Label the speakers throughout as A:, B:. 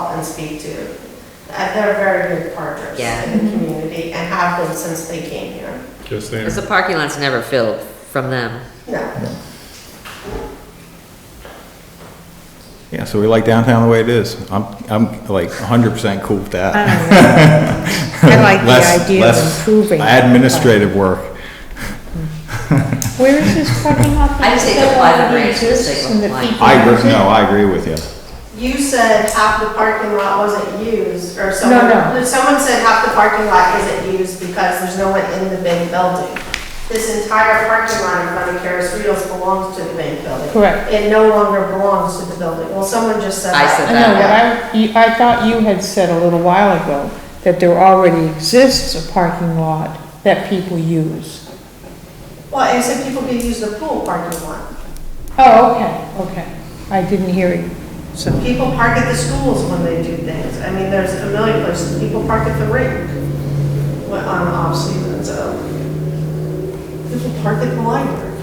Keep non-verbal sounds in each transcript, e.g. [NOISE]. A: call and speak to. Uh, They're very good partners
B: Yeah.
A: in the community and have been since they came here.
C: Just there.
B: Because the parking lot's never filled from them.
A: No,
D: Yeah, so we like downtown the way it is. I'm, I'm like hundred percent cool with
E: I
D: that.
E: don't
D: [LAUGHS]
E: know. I like
D: Less-
E: the idea of
D: less
E: improving.
D: Administrative work.
E: Where is this parking lot?
B: I just think the
E: that
B: plaza
E: already
B: branch is
E: exists
B: like
E: and the
B: one.
E: people
D: I,
E: use
D: agree-
E: it?
D: no, I agree with you.
A: you said half the parking lot wasn't used, or someone,
E: no.
A: someone said half the parking lot isn't used because there's no one in the bank building. This entire parking lot in front of Caris Ritos belongs to the bank building.
E: Correct.
A: It no longer belongs to the building. Well, someone just said
B: I
A: that.
B: said
E: I know, but I, you- I thought you had said a little while ago that there already exists a parking lot that people use.
A: Well, I said people could use the pool parking lot.
E: Oh, okay, okay. I didn't hear you, so.
A: People park at the schools when they do things. I mean, there's a million places. People park at the rink when- on off season, so. People park at the library.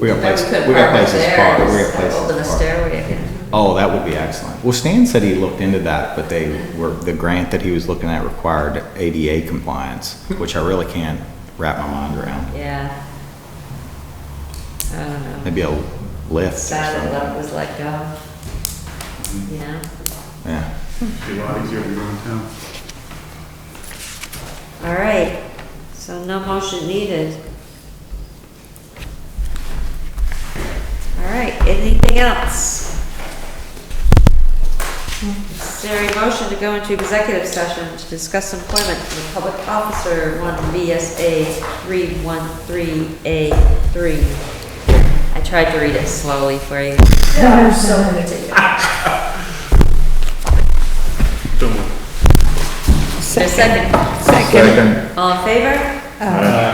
D: We
B: Then
D: got
B: we
D: places,
B: could
D: we got
B: park
D: places to park, we got
B: upstairs,
D: places
B: Open the
D: to park.
B: stairway again.
D: Oh, that would be excellent. Well, Stan said he looked into that, but they were, the grant that he was looking at required ADA compliance, which I really can't wrap my mind around.
B: Yeah. I don't know.
D: Maybe a lift or
B: Sad that
D: something.
B: love was let go. Yeah.
D: Yeah.
C: Be a lot easier to go in town.
B: All right. So no motion needed. All right. Anything else? Is there a motion to go into executive session to discuss employment of a public officer, one VSA three one three A three? I tried to read it slowly for you.
A: Yeah, I'm so gonna take it.
C: Don't worry.
B: Is there a second?
D: Second.
B: All in favor?
E: Uh,